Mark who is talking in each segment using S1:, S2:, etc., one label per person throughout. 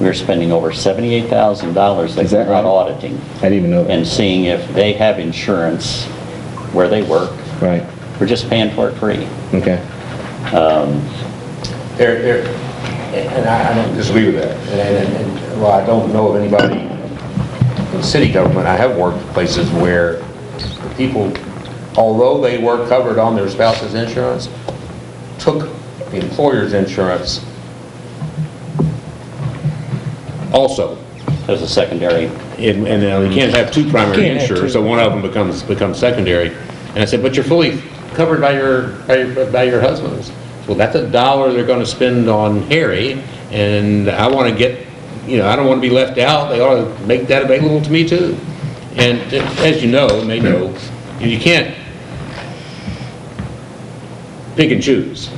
S1: we were spending over seventy-eight thousand dollars that
S2: Is that
S1: we're not
S2: right?
S1: auditing
S2: I didn't even know
S1: and
S2: that.
S1: seeing if they have insurance where they work.
S2: Right,
S1: We're just paying for it free.
S2: okay.
S3: There, there, and I, I don't disagree with that. And, and, and, well, I don't know of anybody in city government, I have worked places where people, although they were covered on their spouse's insurance, took the employer's insurance also.
S1: There's a secondary,
S3: And, and uh, you can't have two primary
S4: Can't have
S3: insurers,
S4: two.
S3: so one of them becomes, becomes secondary. And I said, but you're fully covered by your, by your, by your husband's. Well, that's a dollar they're gonna spend on Harry, and I wanna get, you know, I don't wanna be left out, they ought to make that available to me too. And uh, as you know, and they know, you can't pick and choose.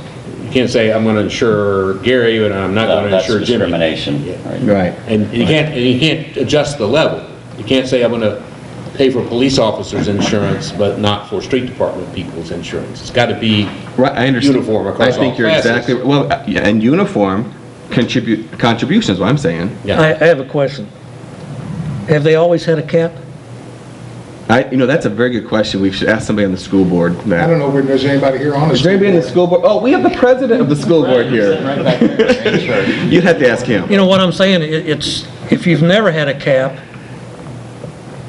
S3: You can't say, I'm gonna insure Gary, and I'm not
S1: uh,
S3: gonna
S1: that's
S3: insure Jimmy.
S1: discrimination. right?
S2: Right.
S3: And you can't, and you can't adjust the level. You can't say, I'm gonna pay for police officers' insurance, but not for street department people's insurance. It's gotta be
S2: Right, I understand.
S3: uniform across all classes.
S2: I think you're exactly, well, uh, yeah, and uniform contribute, contributions, what I'm saying.
S3: Yeah,
S4: I, I have a question. Have they always had a cap?
S2: I, you know, that's a very good question. We should ask somebody on the school board
S5: I don't
S2: that.
S5: know if there's anybody here on the
S2: Is there
S5: school
S2: anybody in the
S5: board.
S2: school board? Oh, we have the president of the school board here. You'd have to ask him.
S4: You know what I'm saying? It, it's, if you've never had a cap,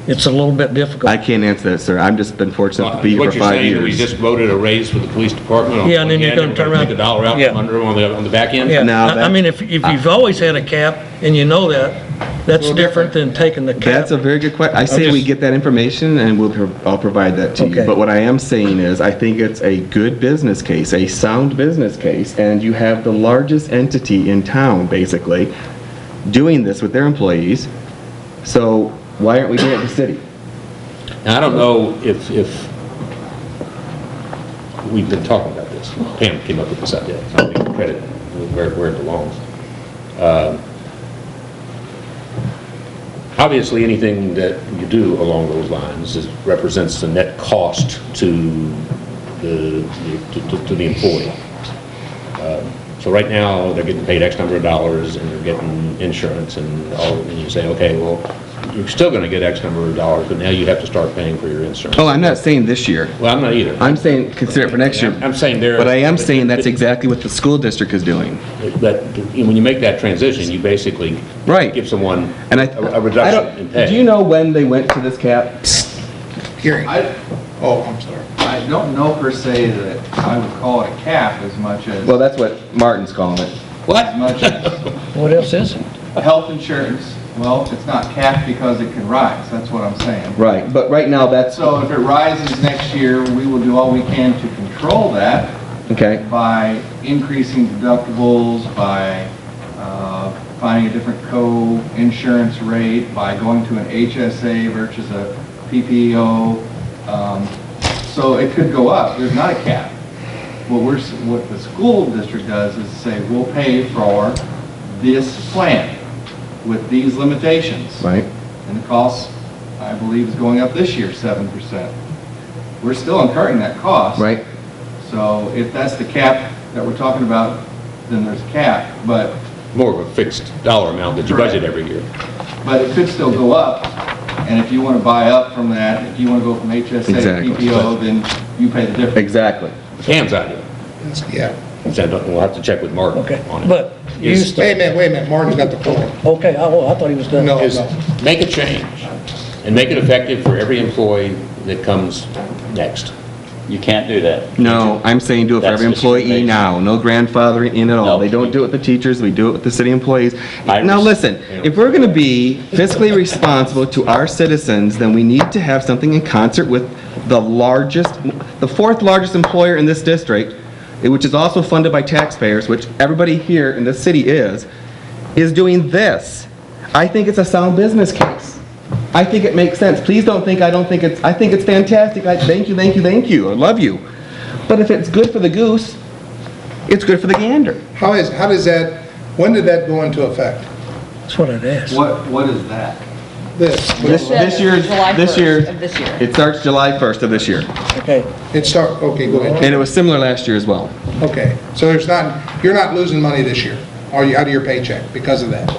S4: it's a little bit difficult.
S2: I can't answer that, sir. I've just been fortunate to
S3: What
S2: be here
S3: you're
S2: for five
S3: saying, is we
S2: years.
S3: just voted a raise for the police department on
S4: Yeah, and then you're
S3: one hand,
S4: gonna turn
S3: we're gonna
S4: around-
S3: take a dollar out
S4: Yeah.
S3: from under them on the, on the back end?
S4: Yeah,
S2: Now
S4: I- I
S2: that-
S4: mean, if, if you've always had a cap and you know that, that's different than taking the cap.
S2: That's a very good question. I say we
S4: just-
S2: get that information and we'll, pro- I'll provide that to you.
S4: Okay.
S2: But what I am saying is, I think it's a good business case, a sound business case, and you have the largest entity in town, basically, doing this with their employees. So why aren't we doing it in the city?
S3: And I don't know if, if, we've been talking about this. Pam came up with this idea, so I'll give her credit where, where it belongs. Um, Obviously, anything that you do along those lines is, represents the net cost to the, to- to, to the employee. Um, So right now, they're getting paid X number of dollars, and they're getting insurance and all, and you say, okay, well, you're still gonna get X number of dollars, but now you have to start paying for your insurance.
S2: Oh, I'm not saying this year.
S3: Well, I'm not either.
S2: I'm saying, consider it for next year.
S3: I'm saying there.
S2: But I am saying that's exactly what the school district is doing.
S3: That, when you make that transition, you basically.
S2: Right.
S3: Give someone
S2: And I,
S3: a a
S2: I
S3: reduction in
S2: don't,
S3: pay.
S2: do you know when they went to this cap?
S6: I,
S5: Oh, I'm sorry.
S6: I don't know per se that I would call it a cap as much as,
S2: Well, that's what Martin's calling it.
S6: as much as
S4: What else is it?
S6: health insurance. Well, it's not capped because it can rise, that's what I'm saying.
S2: Right, but right now, that's,
S6: So if it rises next year, we will do all we can to control that
S2: okay.
S6: by increasing deductibles, by uh, finding a different co-insurance rate, by going to an HSA versus a PPO. Um, So it could go up. There's not a cap. What we're, s- what the school district does is say, we'll pay for this plan with these limitations.
S2: Right.
S6: And the cost, I believe, is going up this year, 7%. We're still incurring that cost.
S2: Right.
S6: So if that's the cap that we're talking about, then there's a cap, but,
S3: More of a fixed dollar amount that you budget every year.
S6: but it could still go up. And if you want to buy up from that, if you want to go from HSA
S2: Exactly.
S6: to PPO, then you pay the difference.
S2: Exactly.
S3: Pam's idea.
S5: Yeah.
S3: So I don't- We'll have to check with Mark on
S4: Okay,
S3: it.
S4: but you
S3: Is-
S4: still-
S5: Wait a minute, wait a minute, Martin's got the floor.
S4: Okay, I, oh, I thought he was done.
S5: No,
S3: Is
S5: no.
S3: make a change and make it effective for every employee that comes next.
S1: You can't do that.
S2: No, I'm saying do it for every
S1: That's
S2: employee
S1: discrimination.
S2: now, no grandfathering in at all.
S1: No.
S2: They don't do it with the teachers, we do it with the city employees.
S1: I
S2: Now,
S1: res-
S2: listen, if we're gonna be fiscally responsible to our citizens, then we need to have something in concert with the largest, the fourth largest employer in this district, eh, which is also funded by taxpayers, which everybody here in this city is, is doing this. I think it's a sound business case. I think it makes sense. Please don't think I don't think it's, I think it's fantastic. I, thank you, thank you, thank you. I love you. But if it's good for the goose, it's good for the gander.
S5: How is, how does that, when did that go into effect?
S4: That's what I'd ask.
S6: What, what is that?
S5: This,
S2: This, this year's,
S7: July
S2: this
S7: 1st
S2: year,
S7: of this year.
S2: it starts July 1st of this year.
S4: Okay,
S5: it start, okay, go ahead.
S2: And it was similar last year as well.
S5: Okay, so there's not, you're not losing money this year, are you, out of your paycheck because of that?